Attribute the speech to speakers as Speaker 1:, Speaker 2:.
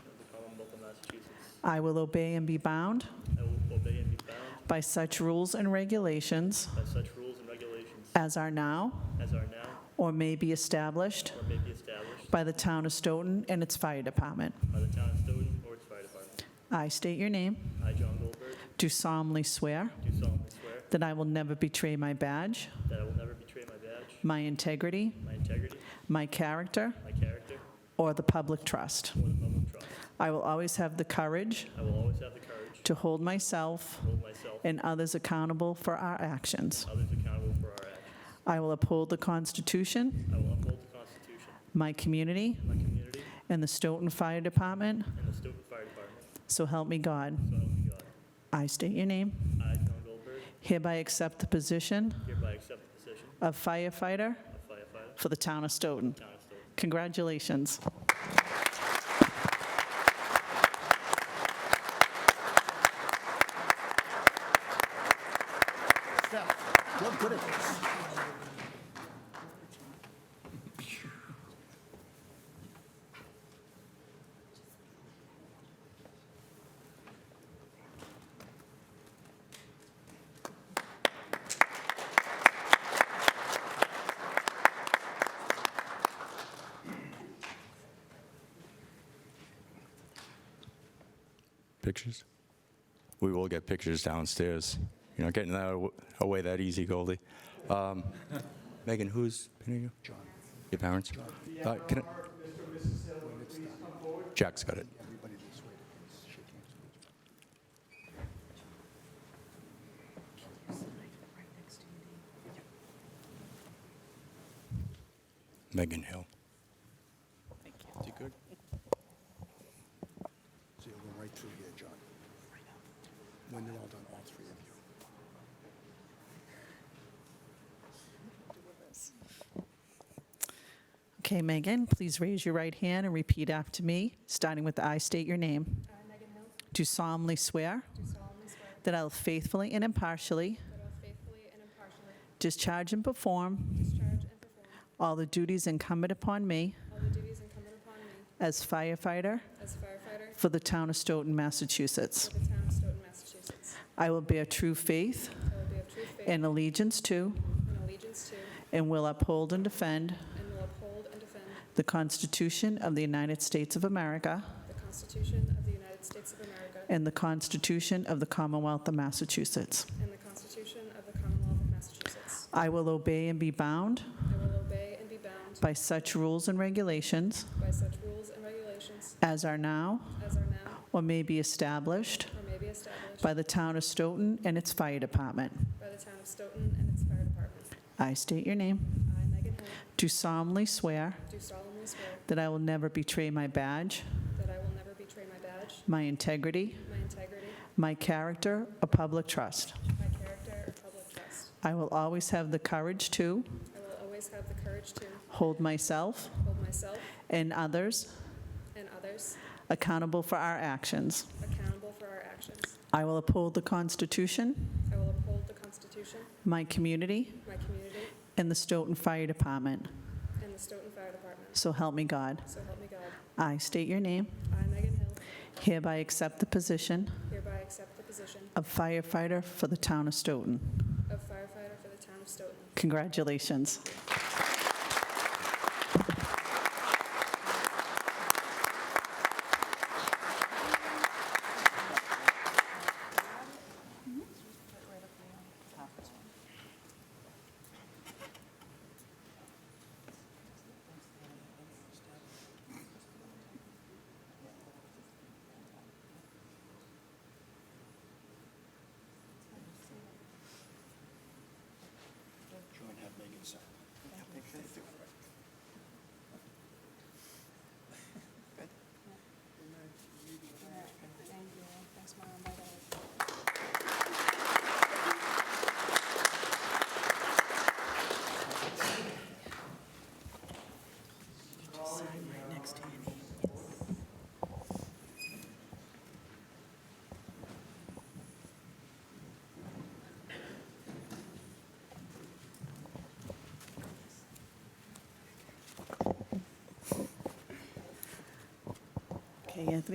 Speaker 1: Massachusetts.
Speaker 2: I will obey and be bound
Speaker 1: I will obey and be bound
Speaker 2: by such rules and regulations
Speaker 1: by such rules and regulations
Speaker 2: as are now
Speaker 1: as are now
Speaker 2: or may be established
Speaker 1: or may be established
Speaker 2: by the town of Stoughton and its fire department.
Speaker 1: by the town of Stoughton or its fire department.
Speaker 2: I state your name,
Speaker 1: I, John Goldberg,
Speaker 2: do solemnly swear
Speaker 1: do solemnly swear
Speaker 2: that I will never betray my badge,
Speaker 1: that I will never betray my badge,
Speaker 2: my integrity,
Speaker 1: my integrity,
Speaker 2: my character,
Speaker 1: my character,
Speaker 2: or the public trust.
Speaker 1: or the public trust.
Speaker 2: I will always have the courage
Speaker 1: I will always have the courage
Speaker 2: to hold myself
Speaker 1: to hold myself and
Speaker 2: and others accountable for our actions.
Speaker 1: others accountable for our actions.
Speaker 2: I will uphold the Constitution,
Speaker 1: I will uphold the Constitution,
Speaker 2: my community,
Speaker 1: my community,
Speaker 2: and the Stoughton Fire Department,
Speaker 1: and the Stoughton Fire Department.
Speaker 2: so help me God.
Speaker 1: So help me God.
Speaker 2: I state your name.
Speaker 1: I, John Goldberg,
Speaker 2: Hereby accept the position
Speaker 1: hereby accept the position
Speaker 2: of firefighter
Speaker 1: of firefighter,
Speaker 2: for the town of Stoughton.
Speaker 1: town of Stoughton.
Speaker 2: Congratulations.
Speaker 3: Steph, you're good at this.
Speaker 4: Pictures? We will get pictures downstairs. You're not getting that aw- away that easy, Goldie. Um, Megan, who's pinning you? John. Your parents? Uh, can I- Jack's got it. Megan Hill.
Speaker 3: Is he good? So you'll go right through here, John. When they're all done, all three of you.
Speaker 2: Okay, Megan, please raise your right hand and repeat after me, starting with I state your name.
Speaker 5: I, Megan Hill, do
Speaker 2: Do solemnly swear
Speaker 5: solemnly swear
Speaker 2: that I will faithfully and impartially
Speaker 5: that I will faithfully and impartially
Speaker 2: discharge and perform
Speaker 5: discharge and perform
Speaker 2: all the duties incumbent upon me
Speaker 5: all the duties incumbent upon me
Speaker 2: as firefighter
Speaker 5: as firefighter
Speaker 2: for the town of Stoughton, Massachusetts.
Speaker 5: for the town of Stoughton, Massachusetts.
Speaker 2: I will bear true faith
Speaker 5: I will be of true faith
Speaker 2: and allegiance to
Speaker 5: and allegiance to
Speaker 2: and will uphold and defend
Speaker 5: and will uphold and defend
Speaker 2: the Constitution of the United States of America
Speaker 5: the Constitution of the United States of America
Speaker 2: and the Constitution of the Commonwealth of Massachusetts.
Speaker 5: and the Constitution of the Commonwealth of Massachusetts.
Speaker 2: I will obey and be bound
Speaker 5: I will obey and be bound
Speaker 2: by such rules and regulations
Speaker 5: by such rules and regulations
Speaker 2: as are now
Speaker 5: as are now
Speaker 2: or may be established
Speaker 5: or may be established
Speaker 2: by the town of Stoughton and its fire department.
Speaker 5: by the town of Stoughton and its fire department.
Speaker 2: I state your name.
Speaker 5: I, Megan Hill,
Speaker 2: Do solemnly swear
Speaker 5: do solemnly swear
Speaker 2: that I will never betray my badge,
Speaker 5: that I will never betray my badge
Speaker 2: my integrity,
Speaker 5: My integrity,
Speaker 2: my character, or public trust.
Speaker 5: my character, or public trust.
Speaker 2: I will always have the courage to
Speaker 5: I will always have the courage to
Speaker 2: hold myself
Speaker 5: hold myself
Speaker 2: and others
Speaker 5: and others
Speaker 2: accountable for our actions.
Speaker 5: accountable for our actions.
Speaker 2: I will uphold the Constitution,
Speaker 5: I will uphold the Constitution,
Speaker 2: my community,
Speaker 5: my community,
Speaker 2: and the Stoughton Fire Department.
Speaker 5: and the Stoughton Fire Department.
Speaker 2: So help me God.
Speaker 5: So help me God.
Speaker 2: I state your name,
Speaker 5: I, Megan Hill,
Speaker 2: hereby accept the position
Speaker 5: hereby accept the position
Speaker 2: of firefighter for the town of Stoughton.
Speaker 5: of firefighter for the town of Stoughton.
Speaker 2: Congratulations.
Speaker 3: Try and have Megan sign.
Speaker 2: Okay, Anthony.